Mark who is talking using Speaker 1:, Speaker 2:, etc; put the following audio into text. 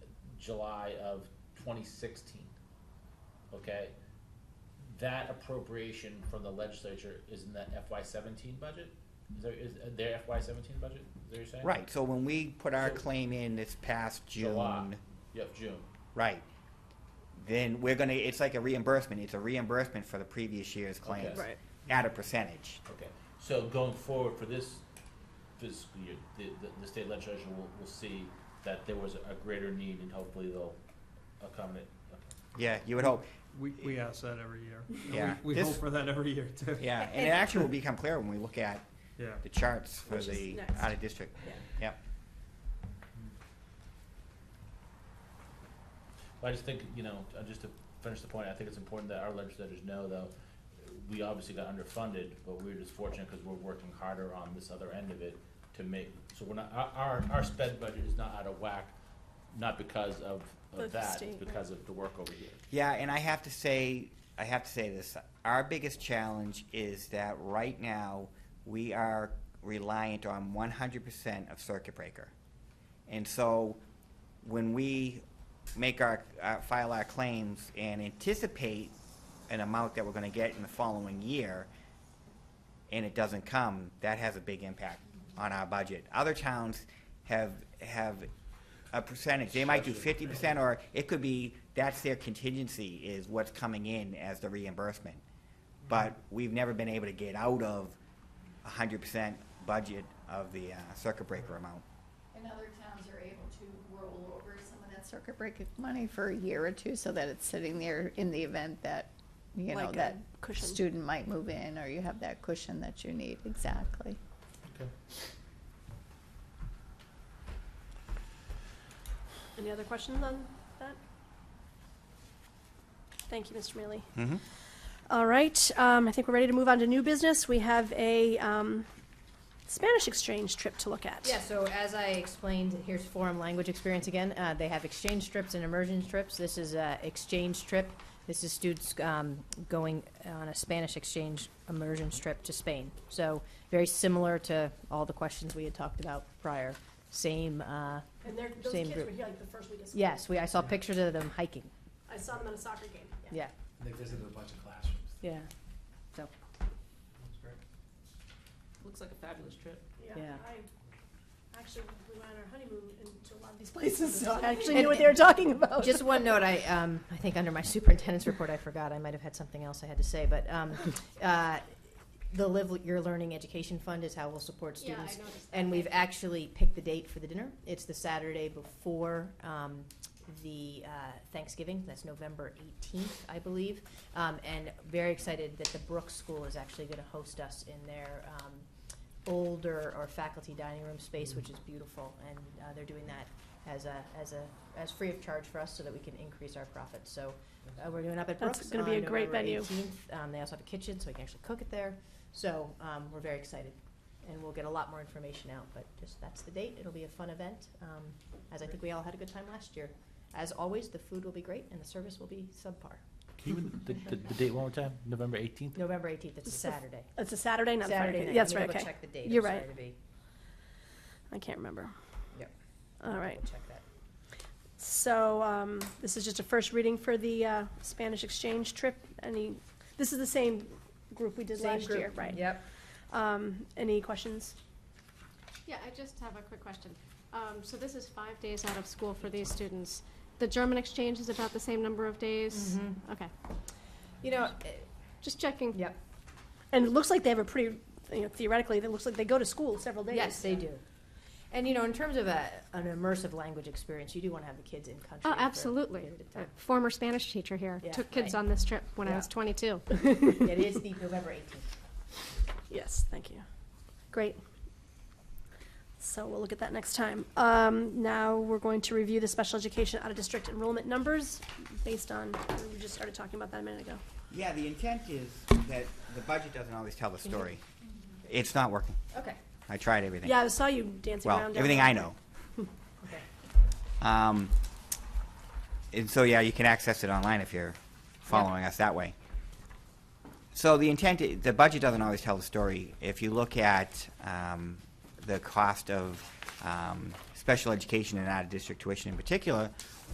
Speaker 1: July of twenty sixteen. Okay? That appropriation from the legislature is in that FY seventeen budget? Is there, is uh, their FY seventeen budget, is that what you're saying?
Speaker 2: Right, so when we put our
Speaker 1: So-
Speaker 2: claim in this past
Speaker 1: July.
Speaker 2: June,
Speaker 1: Yep, June.
Speaker 2: right, then we're gonna, it's like a reimbursement, it's a reimbursement for the previous year's claims.
Speaker 1: Right.
Speaker 2: At a percentage.
Speaker 1: Okay, so going forward for this fiscal year, the, the, the state legislature will, will see that there was a greater need and hopefully they'll accommodate. Okay.
Speaker 2: Yeah, you would hope,
Speaker 3: We, we ask that every year. And we-
Speaker 2: Yeah.
Speaker 3: We
Speaker 2: This-
Speaker 3: hope for that every year too.
Speaker 2: yeah, and it actually will become clear when we look at
Speaker 3: Yeah.
Speaker 2: the charts for
Speaker 4: Which is
Speaker 2: the
Speaker 4: next.
Speaker 2: out-of-district,
Speaker 4: Yeah.
Speaker 2: yep.
Speaker 1: Well, I just think, you know, uh, just to finish the point, I think it's important that our legislators know though, we obviously got underfunded, but we're just fortunate because we're working harder on this other end of it to make, so we're not, our, our, our sped budget is not out of whack, not because of,
Speaker 4: The
Speaker 1: of that,
Speaker 4: state,
Speaker 1: it's
Speaker 4: right.
Speaker 1: because of the work over here.
Speaker 2: Yeah, and I have to say, I have to say this. Our biggest challenge is that right now we are reliant on 100% of circuit breaker. And so when we make our, uh, file our claims and anticipate an amount that we're going to get in the following year, and it doesn't come, that has a big impact on our budget. Other towns have, have a percentage, they might do fifty percent, or it could be, that's their contingency, is what's coming in as the reimbursement. But we've never been able to get out of a hundred percent budget of the uh, circuit breaker amount.
Speaker 5: And other towns are able to roll over some of that circuit breaker money for a year or two, so that it's sitting there in the event that, you know,
Speaker 4: Like a
Speaker 5: that
Speaker 4: cushion.
Speaker 5: student might move in, or you have that cushion that you need, exactly.
Speaker 1: Okay.
Speaker 4: Any other questions on that? Thank you, Mr. Mealy.
Speaker 2: Mm-hmm.
Speaker 4: All right, um, I think we're ready to move on to new business. We have a, um, Spanish exchange trip to look at.
Speaker 6: Yeah, so as I explained, here's foreign language experience again. Uh, they have exchange trips and immersion trips. This is a exchange trip. This is students um, going on a Spanish exchange immersion trip to Spain. So very similar to all the questions we had talked about prior. Same. Uh,
Speaker 4: And they're, those
Speaker 6: Same
Speaker 4: kids
Speaker 6: group.
Speaker 4: were here like the first week of school.
Speaker 6: yes, we. I saw pictures of them hiking.
Speaker 4: I saw them at a soccer game.
Speaker 6: Yeah.
Speaker 7: They visited a bunch of classrooms.
Speaker 6: Yeah. So
Speaker 7: That's great.
Speaker 8: Looks like a fabulous trip.
Speaker 6: Yeah.
Speaker 4: I, actually, we went on our honeymoon into a lot of these places, so I actually
Speaker 6: And-
Speaker 4: knew what they were talking about.
Speaker 6: Just one note, I, um, I think under my superintendent's report, I forgot, I might have had something else I had to say, but, um, uh, the Live Your Learning Education Fund is how we'll support
Speaker 4: Yeah, I
Speaker 6: students.
Speaker 4: noticed that.
Speaker 6: And we've actually picked the date for the dinner. It's the Saturday before, um, the, uh, Thanksgiving, that's November eighteenth, I believe. Um, and very excited that the Brooks School is actually gonna host us in their, um, older or faculty dining room space, which is beautiful, and, uh, they're doing that as a, as a, as free of charge for us so that we can increase our profits. So uh, we're doing up at
Speaker 4: That's
Speaker 6: Brooks
Speaker 4: gonna be
Speaker 6: on
Speaker 4: a great venue.
Speaker 6: November 18th. Um, they also have a kitchen, so we can actually cook it there. So um, we're very excited, and we'll get a lot more information out. But just that's the date. It'll be a fun event, um, as I think we all had a good time last year. As always, the food will be great, and the service will be subpar.
Speaker 1: Can you, the, the, the date one more time, November eighteenth?
Speaker 6: November 18th. It's a
Speaker 4: It's the f-
Speaker 6: Saturday.
Speaker 4: It's a Saturday, not a Friday.
Speaker 6: Saturday night.
Speaker 4: That's
Speaker 6: Let me
Speaker 4: right,
Speaker 6: double
Speaker 4: okay.
Speaker 6: Check the date.
Speaker 4: You're
Speaker 6: I'm
Speaker 4: right.
Speaker 6: sorry to be-
Speaker 4: I can't remember.
Speaker 6: Yep.
Speaker 4: All
Speaker 6: I'll
Speaker 4: right.
Speaker 6: double Check that.
Speaker 4: So, um, this is just a first reading for the, uh, Spanish exchange trip. Any, this is the same group we did
Speaker 6: Same
Speaker 4: last year,
Speaker 6: group.
Speaker 4: right?
Speaker 6: Yep.
Speaker 4: Um, any questions?
Speaker 9: Yeah, I just have a quick question. Um, so this is five days out of school for these students. The German exchange is about the same number of days? Okay,
Speaker 6: You know. uh,
Speaker 4: Mm-hmm.
Speaker 9: just checking.
Speaker 6: Mm-hmm. Yep.
Speaker 4: And it looks like they have a pretty, you know, theoretically, it looks like they go to school several days.
Speaker 6: Yes, they do. And you know, in terms of a, an immersive language experience, you do want to have the kids in country.
Speaker 9: Oh,
Speaker 6: for a
Speaker 9: absolutely.
Speaker 6: period of time.
Speaker 9: Former Spanish teacher here,
Speaker 6: Yeah,
Speaker 9: took kids
Speaker 6: right.
Speaker 9: on this trip when I was
Speaker 6: Yeah.
Speaker 9: twenty-two.
Speaker 6: It is the November eighteenth.
Speaker 4: Yes, thank you. Great. So we'll look at that next time. Um, now we're going to review the special education out-of-district enrollment numbers based on, we just started talking about that a minute ago.
Speaker 2: Yeah, the intent is that the budget doesn't always tell the story. It's not working.
Speaker 6: Okay.
Speaker 2: I tried everything.
Speaker 4: Yeah, I saw you dancing around.
Speaker 2: Well,
Speaker 4: down
Speaker 2: everything
Speaker 4: there.
Speaker 2: I know. Um, and so, yeah, you can access it online if you're following us that way. So the intent, i- the budget doesn't always tell the story. If you look at um, the cost of um, special education and out-of-district tuition in particular,